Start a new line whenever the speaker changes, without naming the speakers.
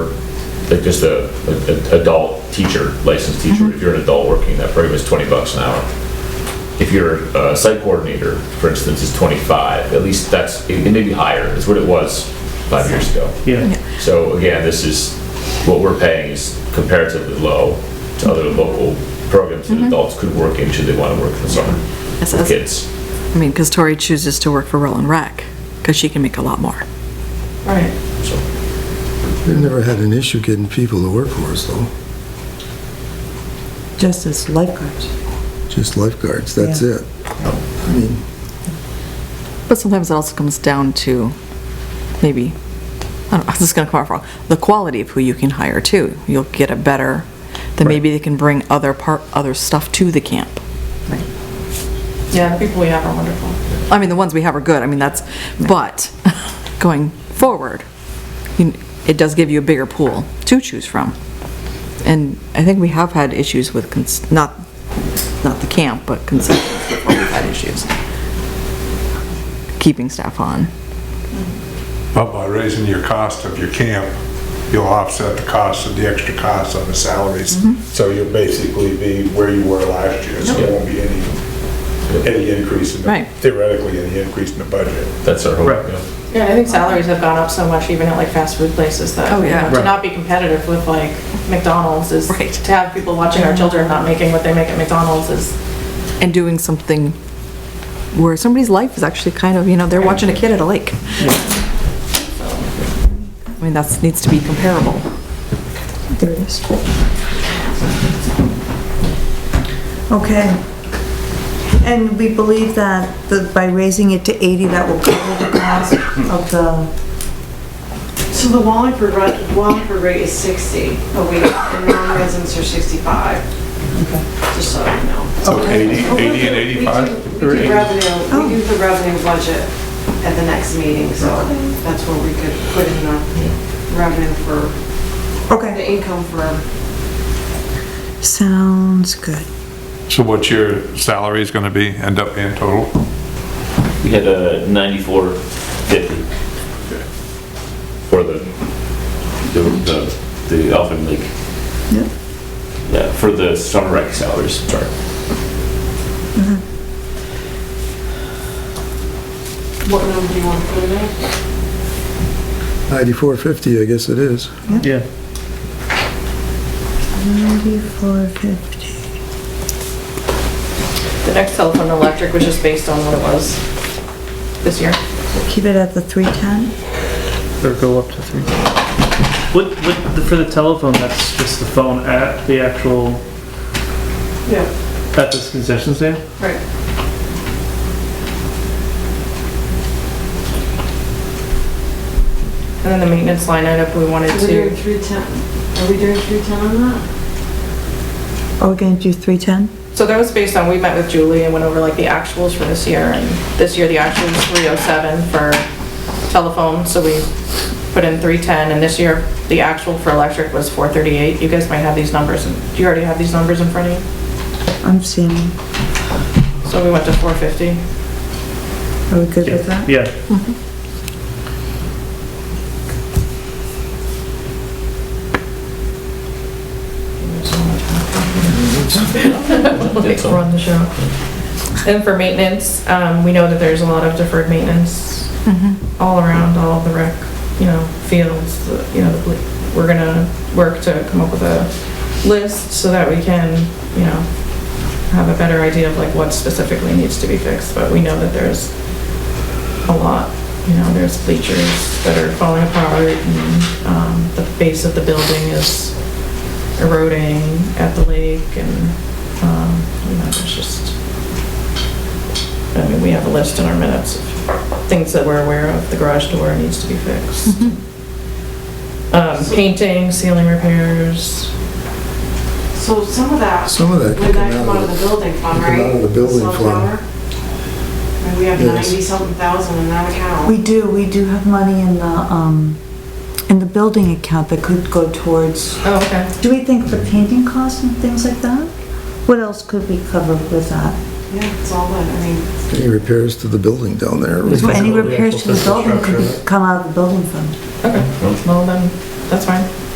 like just a, a- a adult teacher, licensed teacher, if you're an adult working in that program, it's 20 bucks an hour. If you're a site coordinator, for instance, is 25, at least that's, it it may be higher, it's what it was five years ago.
Yeah.
So again, this is, what we're paying is comparatively low to other local programs that adults could work in should they want to work in the summer
Yes,
with
as-
kids.
I mean, because Tori chooses to work for Roland Rec, because she can make a lot more.
Right.
So
We've never had an issue getting people to work for us, though.
Just as lifeguards.
Just lifeguards, that's
Yeah.
it. I mean,
But sometimes it also comes down to maybe, I don't know, this is going to come out wrong, the quality of who you can hire too. You'll get a better, then maybe they can bring other part, other stuff to the camp.
Yeah, the people we have are wonderful.
I mean, the ones we have are good, I mean, that's, but going forward, you- it does give you a bigger pool to choose from. And I think we have had issues with, cons- not, not the camp, but concessions before we've had issues. Keeping staff on.
But by raising your cost of your camp, you'll offset the cost of the extra cost of the salaries. So you'll basically be where you were last year, so there won't be any, any increase in, the-
Right.
theoretically, any increase in the budget.
that's our hope.
Right.
yeah.
Yeah, I think salaries have gone up so much even at like fast food places that,
Oh,
you
yeah.
know, to
Right.
not be competitive with like McDonald's is,
Right.
to have people watching our children not making what they make at McDonald's is,
and doing something where somebody's life is actually kind of, you know, they're watching a kid at a lake. I mean, that's, needs to be comparable.
There it is. Okay. And we believe that the- by raising it to 80, that will cover the cost of the,
So the Wallingford, rate- Wallingford rate is 60 a week, and non-residents are 65. Just so you know.
So 80, 80 and
We
85?
do- We do revenue, we do the revenue budget at the next meeting, so that's where we could put in the revenue for, the
okay,
income for
sounds good.
So what's your salary is gonna be, end up being total?
We had a 94, 50
For the,
the, the, the Elfin League.
Yep.
Yeah, for the summer rec salaries, sorry.
what number you want to put in there.
9450, I guess it is.
Yeah.
9450.
the next telephone and electric was just based on what it was this year.
Keep it at the 310?
Or go up to three. What, what, the- for the telephone, that's just the phone at the actual,
Yeah.
at this concession stand?
Right. And then the maintenance line item, we wanted
We're doing
to,
310, are we doing 310 on that?
Are we going to do 310?
so that was based on, we met with Julie and went over like the actuals for this year, and this year the actual was 307 for telephone, so we put in 310, and this year the actual for electric was 438. You guys might have these numbers, and do you already have these numbers in front of you?
I'm seeing,
So we went to 450.
are we good with
Yeah.
that?
Yeah.
Like, run the show. And for maintenance, um, we know that there's a lot of deferred maintenance
Mm-hmm.
all around, all the rec, you know, fields, the- you know, the ble- we're gonna work to come up with a list so that we can, you know, have a better idea of like what specifically needs to be fixed, but we know that there's a lot, you know, there's bleachers that are falling apart and, um, the base of the building is eroding at the lake and, um, you know, it's just, I mean, we have a list in our minutes of things that we're aware of, the garage door needs to be fixed. Um, painting, ceiling repairs,
So some of that
Some of that
Would
could
that
come
come out of the building fund,
could come
right?
out of the building fund.
Sunflower? And we have
Yes.
ninety-something thousand in that account.
We do, we do have money in the, um, in the building account that could go towards
oh, okay.
Do we think the painting costs and things like that? What else could be covered with that?
Yeah, it's all that, I mean,
Any repairs to the building down there?
So any repairs to the building could be- come out of the building fund.
Okay, well then, that's fine.